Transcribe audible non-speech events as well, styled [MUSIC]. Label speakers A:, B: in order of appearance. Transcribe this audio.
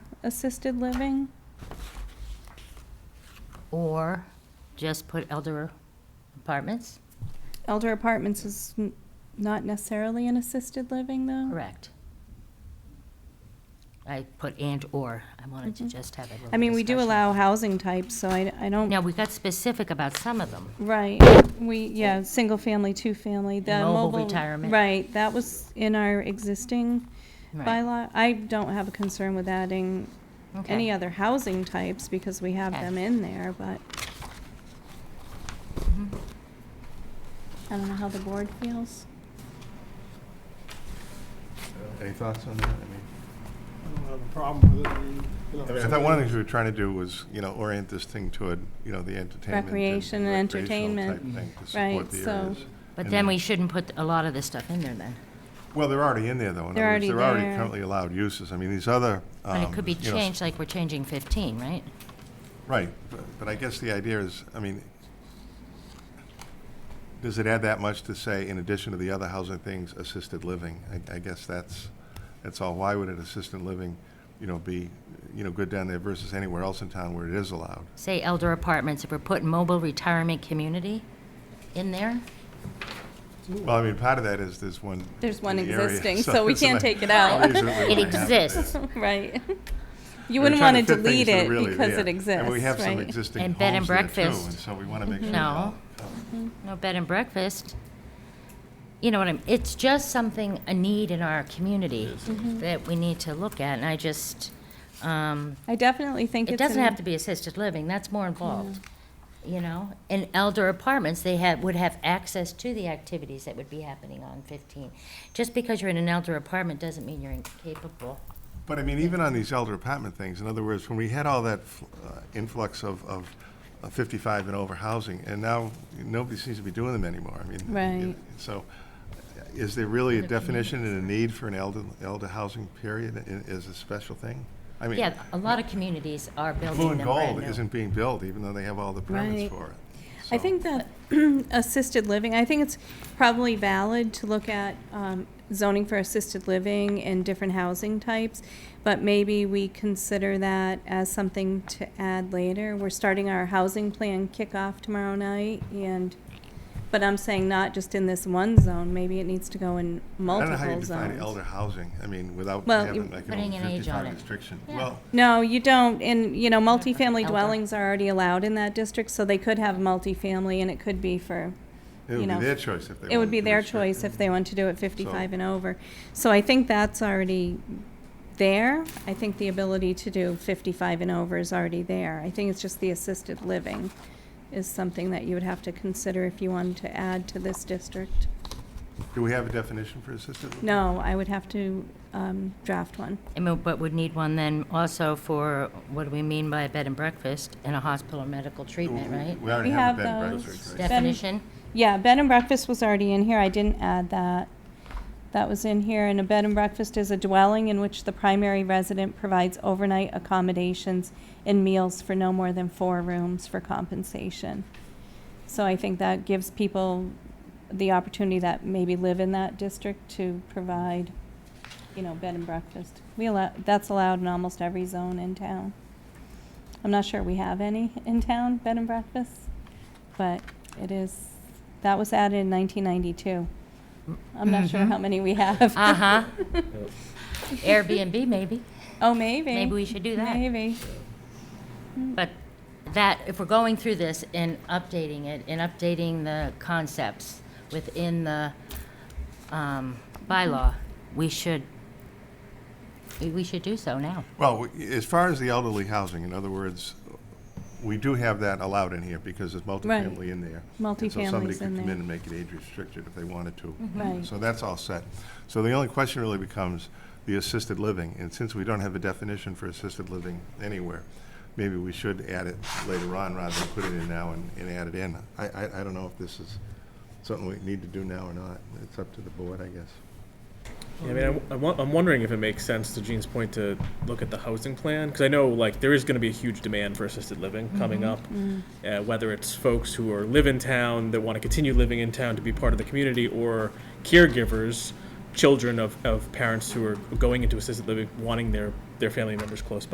A: assisted living?
B: Or just put elder apartments?
A: Elder apartments is n- not necessarily an assisted living, though?
B: Correct. I put and/or. I wanted to just have a little
A: Mm-hmm. I mean, we do
B: discussion.
A: allow housing types, so I, I don't,
B: Now, we got specific about some of them.
A: right, we, yeah, single family, two family, the
B: Mobile
A: mobile.
B: retirement.
A: Right, that was in our existing
B: Right.
A: bylaw. I don't have a concern with adding
B: Okay.
A: any other housing types because we have
B: Okay.
A: them in there, but mm-hmm.
B: Mhm.
A: I don't know how the board feels. [LAUGHS]
C: Any thoughts on that? I mean,
D: I don't have a problem with it. I mean, you know,
C: I mean, I thought one of the things we were trying to do was, you know, orient this thing toward, you know, the entertainment.
A: Recreation and
C: recreational type
A: entertainment.
C: thing to
A: Right,
C: support the
A: so-
C: areas.
B: But
C: And
B: then we shouldn't put a lot of this stuff in there then.
C: Well, they're already in there, though. In
A: They're
C: other
A: already
C: words, They're
A: there.
C: already currently allowed uses. I mean, these other.
B: But it
C: um,
B: could be
C: you know, s-
B: changed, like we're changing 15, right?
C: Right, but- but I guess the idea is, I mean, does it add that much to say, in addition to the other housing things, assisted living? I, I guess that's, that's all. Why would an assisted living, you know, be, you know, good down there versus anywhere else in town where it is allowed?
B: Say elder apartments, if we're putting mobile retirement community in there?
C: Well, I mean, part of that is there's one.
A: There's
C: in
A: one
C: the area,
A: existing, so we
C: it's
A: can't
C: like-
A: take it out.
C: obviously we
B: It
C: wanna have
B: exists.
C: there.
A: Right. You
C: We're
A: wouldn't
C: trying
A: want to
C: fit things
A: delete
C: that
A: it
C: really-
A: because
C: yeah.
A: it exists,
C: And we have some
A: right?
C: existing
B: And
C: homes
B: bed and
C: there too,
B: breakfast.
C: and so we want to make sure.
B: No.
C: that all-
B: No bed and breakfast. You know what I'm, it's just something, a need in our community that we need to look at, and I just, um,
A: I definitely think it's.
B: it doesn't
A: an-
B: have to be assisted living, that's more involved, you know? In elder apartments, they have, would have access to the activities that would be happening on 15. Just because you're in an elder apartment doesn't mean you're incapable.
C: But I mean, even on these elder apartment things, in other words, when we had all that f- uh, influx of, of of 55 and over housing, and now nobody seems to be doing them anymore. I mean. it-
A: Right.
C: So uh, is there really a definition and a need for an elder, elder housing period i- is a special thing? I mean,
B: Yeah, a lot of communities are
C: Blue
B: building
C: and
B: them brand
C: Gold
B: new.
C: isn't being built, even though they have all the permits
A: Right.
C: for it.
A: I
C: So-
A: think that [CLEARS THROAT] assisted living, I think it's probably valid to look at um, zoning for assisted living and different housing types, but maybe we consider that as something to add later. We're starting our housing plan kickoff tomorrow night, and, but I'm saying not just in this one zone, maybe it needs to go in
C: I don't know
A: multiple
C: how you
A: zones.
C: define elder housing, I mean, without
A: Well,
C: having
A: you-
C: like an
B: Putting
C: old
B: an age on
C: fifty-five
B: it.
C: restriction.
B: Yeah.
C: Well,
A: No, you don't, and, you know, multifamily
B: Elder.
A: dwellings are already allowed in that district, so they could have multifamily, and it could be for
C: it
A: You
C: would be
A: know,
C: their choice if they
A: It would
C: wanted
A: be
C: to
A: their
C: restrict it.
A: choice if they want to do it 55 and over. So I think that's already there. I think the ability to do 55 and over is already there. I think it's just the assisted living is something that you would have to consider if you wanted to add to this district.
C: Do we have a definition for assisted? living?
A: No, I would have to um, draft one.
B: I mean, But would need one then also for, what do we mean by a bed and breakfast and a hospital medical treatment,
C: We-
B: right?
C: We already
A: We
C: have a bed
A: have
C: and
A: those.
C: breakfast, right?
A: Bed-
B: Definition?
A: Yeah, bed and breakfast was already in here. I didn't add that. That was in here, and a bed and breakfast is a dwelling in which the primary resident provides overnight accommodations and meals for no more than four rooms for compensation. So I think that gives people the opportunity that maybe live in that district to provide, you know, bed and breakfast. We allow, that's allowed in almost every zone in town. I'm not sure we have any in town, bed and breakfasts, but it is, that was added in nineteen ninety-two. I'm not sure how many we have.
B: Mm-hmm. Uh-huh. Airbnb, maybe.
A: [LAUGHS] Oh, maybe.
B: Maybe we should do that.
A: Maybe.
B: But that, if we're going through this and updating it, and updating the concepts within the um, bylaw, we should, we- we should do so now.
C: Well, we- as far as the elderly housing, in other words, we do have that allowed in here because there's multifamily in there. And So somebody
A: Multifamily's
C: could
A: in
C: come
A: there.
C: in and make it age restricted if they wanted to.
A: Right.
C: So that's all set. So the only question really becomes the assisted living, and since we don't have a definition for assisted living anywhere, maybe we should add it later on rather than put it in now and, and add it in. I, I, I don't know if this is something we need to do now or not. It's up to the board, I guess.
E: Yeah, I mean, I- I, wa- I'm wondering if it makes sense to Gene's point to look at the housing plan because I know like there is going to be a huge demand for assisted living coming up, uh, whether it's folks who are live in town that want to continue living in town to be part of the community or caregivers, children of, of parents who are going into assisted living wanting their their family members close by.